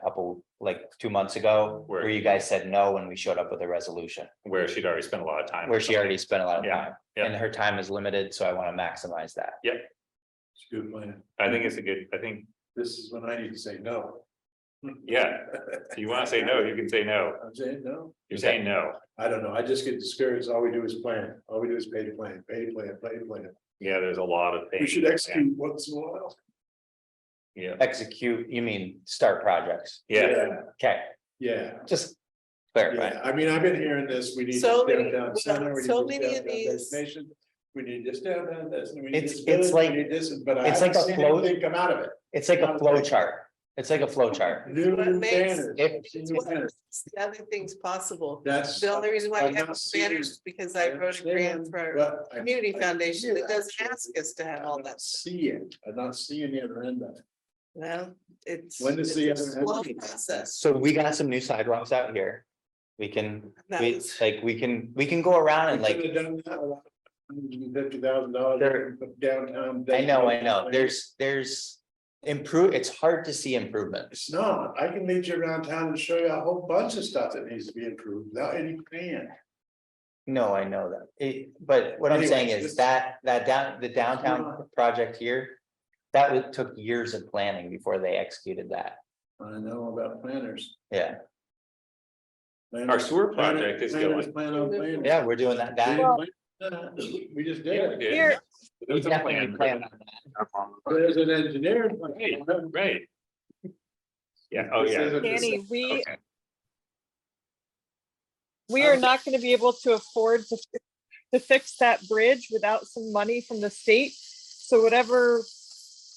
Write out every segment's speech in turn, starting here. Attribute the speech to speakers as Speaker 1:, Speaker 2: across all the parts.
Speaker 1: couple, like two months ago,
Speaker 2: Where-
Speaker 1: where you guys said no when we showed up with a resolution,
Speaker 2: where she'd already spent a lot of time.
Speaker 1: where she already spent a lot of
Speaker 2: Yeah,
Speaker 1: time.
Speaker 2: yeah.
Speaker 1: And her time is limited, so I want to maximize that.
Speaker 3: It's a good plan.
Speaker 2: I think it's a good, I think,
Speaker 3: This is when I need to say no.
Speaker 2: yeah, if you wanna say no, you can say no,
Speaker 3: I'm saying no.
Speaker 2: you're saying no,
Speaker 3: I don't know. I just get discouraged. All we do is plan. All we do is pay to plan, pay to plan, pay to plan.
Speaker 2: yeah, there's a lot of things.
Speaker 3: We should execute once in a while.
Speaker 2: Yeah,
Speaker 1: Execute, you mean start projects.
Speaker 2: yeah,
Speaker 1: Okay,
Speaker 3: Yeah,
Speaker 1: just clarify.
Speaker 3: yeah. I mean, I've been hearing this. We need. this
Speaker 4: So many-
Speaker 3: downtown center, we need
Speaker 4: so
Speaker 3: this
Speaker 4: many of
Speaker 3: downtown
Speaker 4: these-
Speaker 3: destination, We need this downtown, this. and we need
Speaker 1: It's-
Speaker 3: this
Speaker 1: it's
Speaker 3: village, we
Speaker 1: like-
Speaker 3: need This, but I
Speaker 1: it's like
Speaker 3: haven't
Speaker 1: a
Speaker 3: seen
Speaker 1: flow-
Speaker 3: anything come out of it.
Speaker 1: It's like a flow chart. It's like a flow chart.
Speaker 3: New
Speaker 4: What makes-
Speaker 3: banners.
Speaker 1: If-
Speaker 3: I've seen
Speaker 4: It's
Speaker 3: new
Speaker 4: what
Speaker 3: banners.
Speaker 4: makes the Other things possible.
Speaker 3: That's.
Speaker 4: The only reason why
Speaker 3: I've
Speaker 4: we have
Speaker 3: not seen it.
Speaker 4: banners is because I wrote a grant
Speaker 3: understand,
Speaker 4: for our
Speaker 3: but I-
Speaker 4: community
Speaker 3: I
Speaker 4: foundation
Speaker 3: hear
Speaker 4: that doesn't
Speaker 3: that.
Speaker 4: ask us to have all
Speaker 3: I
Speaker 4: that.
Speaker 3: don't See it, I don't see any other end of it.
Speaker 4: Well, it's.
Speaker 3: When does the
Speaker 4: it's a
Speaker 3: other end
Speaker 4: slow
Speaker 3: come?
Speaker 4: process.
Speaker 1: So we got some new sidewalks out here. We can,
Speaker 4: That
Speaker 1: we,
Speaker 4: was-
Speaker 1: like, we can, we can go around and like,
Speaker 3: Fifty thousand dollars
Speaker 1: There-
Speaker 3: downtown.
Speaker 1: I know, I know, there's, there's. Improve, it's hard to see improvement.
Speaker 3: It's not, I can lead you around town and show you a whole bunch of stuff that needs to be improved without any plan.
Speaker 1: No, I know that. It, but what I'm
Speaker 3: Anyways,
Speaker 1: saying
Speaker 3: this-
Speaker 1: is that, that down, the downtown
Speaker 3: not-
Speaker 1: project here. That would, took years of planning before they executed that.
Speaker 3: I know about planners.
Speaker 1: Yeah,
Speaker 3: Planners-
Speaker 2: our sewer
Speaker 3: planners-
Speaker 2: project is
Speaker 3: planners
Speaker 2: going.
Speaker 3: Plan on planners.
Speaker 1: yeah, we're doing that,
Speaker 3: They
Speaker 1: that.
Speaker 3: didn't plan that. We just did it.
Speaker 2: Yeah,
Speaker 4: Here-
Speaker 2: we did.
Speaker 1: we
Speaker 2: There's a
Speaker 1: definitely
Speaker 2: plan.
Speaker 1: planned on that.
Speaker 3: There's an engineer.
Speaker 2: Hey, Right. Yeah, oh,
Speaker 3: This
Speaker 2: yeah,
Speaker 3: isn't just-
Speaker 5: Danny, we,
Speaker 2: okay,
Speaker 5: we are not gonna be able to afford to, fi- to fix that bridge without some money from the state. So whatever,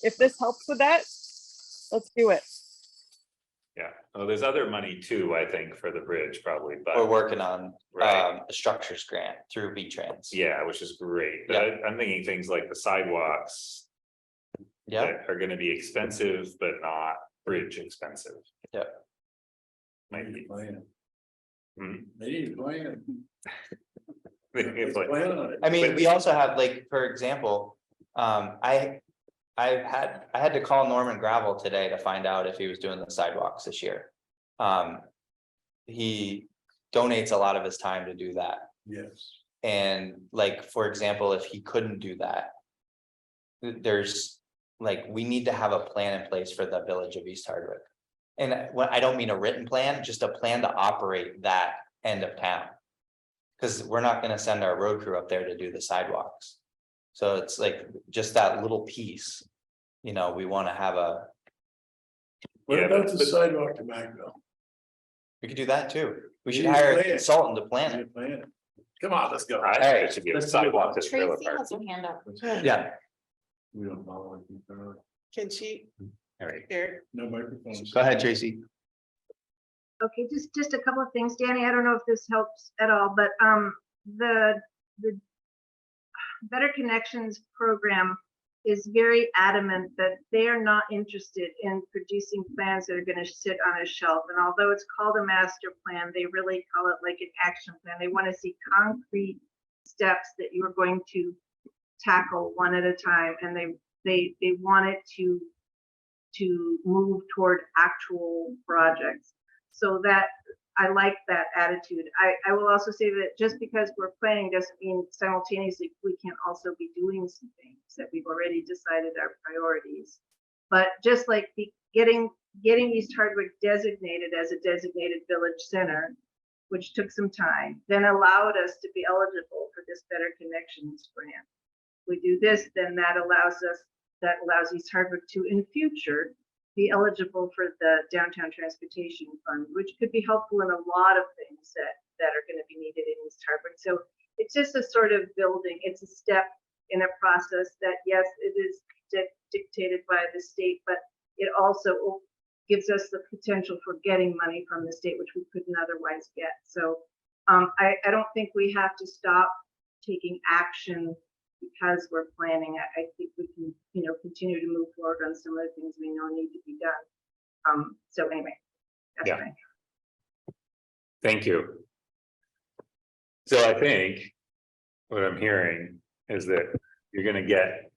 Speaker 5: if this helps with that, let's do it.
Speaker 2: yeah, oh, there's other money too, I think, for the bridge probably,
Speaker 1: We're
Speaker 2: but,
Speaker 1: working on,
Speaker 2: right,
Speaker 1: um, the structures grant through V-Trans.
Speaker 2: yeah, which is great, but
Speaker 1: Yeah.
Speaker 2: I- I'm thinking things like the sidewalks.
Speaker 1: Yeah,
Speaker 2: that Are gonna be expensive, but not bridge expensive.
Speaker 1: Yeah.
Speaker 3: They
Speaker 2: Might
Speaker 3: need
Speaker 2: be.
Speaker 3: a plan.
Speaker 2: Hmm.
Speaker 3: They need a plan.
Speaker 2: It's like-
Speaker 3: Plan on it.
Speaker 1: I mean, we also have like, for example, um, I. I had, I had to call Norman Gravel today to find out if he was doing the sidewalks this year. Um. He donates a lot of his time to do that.
Speaker 3: Yes.
Speaker 1: And like, for example, if he couldn't do that. th- There's, like, we need to have a plan in place for the village of East Hardwick. And I- what, I don't mean a written plan, just a plan to operate that end of town. Cause we're not gonna send our road crew up there to do the sidewalks. So it's like, just that little piece. You know, we wanna have a,
Speaker 3: What
Speaker 2: Yeah,
Speaker 3: about
Speaker 2: but-
Speaker 3: the
Speaker 2: but-
Speaker 3: sidewalk to Magville?
Speaker 1: we could do that too. We should
Speaker 3: Need a
Speaker 1: hire a
Speaker 3: plan.
Speaker 1: consultant to plan
Speaker 3: Need a
Speaker 1: it.
Speaker 3: plan. Come on, let's go.
Speaker 2: I think
Speaker 1: Alright,
Speaker 2: it should be a
Speaker 3: let's do
Speaker 2: sidewalk
Speaker 3: it.
Speaker 2: to trailer
Speaker 6: Tracy
Speaker 2: park.
Speaker 6: has her hand up.
Speaker 1: Yeah,
Speaker 3: We don't follow anything thoroughly.
Speaker 4: Can she,
Speaker 2: All right.
Speaker 4: here,
Speaker 3: No microphones.
Speaker 1: go ahead, Tracy.
Speaker 7: Okay, just, just a couple of things, Danny. I don't know if this helps at all, but, um, the, the Better Connections program is very adamant that they are not interested in producing plans that are gonna sit on a shelf. And although it's called a master plan, they really call it like an action plan. They wanna see concrete steps that you are going to tackle one at a time, and they, they, they want it to, to move toward actual projects. So that, I like that attitude. I, I will also say that just because we're planning doesn't mean simultaneously we can also be doing some things that we've already decided our priorities. But just like the, getting, getting East Hardwick designated as a designated village center, which took some time, then allowed us to be eligible for this Better Connections grant. We do this, then that allows us, that allows East Hardwick to in future be eligible for the downtown transportation fund, which could be helpful in a lot of things that, that are gonna be needed in East Harbor. So it's just a sort of building, it's a step in a process that, yes, it is dic- dictated by the state, but it also o- gives us the potential for getting money from the state, which we couldn't otherwise get. So um, I, I don't think we have to stop taking action because we're planning, I, I think we can, you know, continue to move forward on some of the things we know need to be done. Um, so anyway. that's
Speaker 2: Yeah.
Speaker 7: my-
Speaker 2: Thank you. So I think what I'm hearing is that you're gonna get,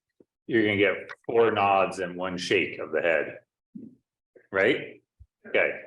Speaker 2: you're gonna get four nods and one shake of the head. Right? Okay,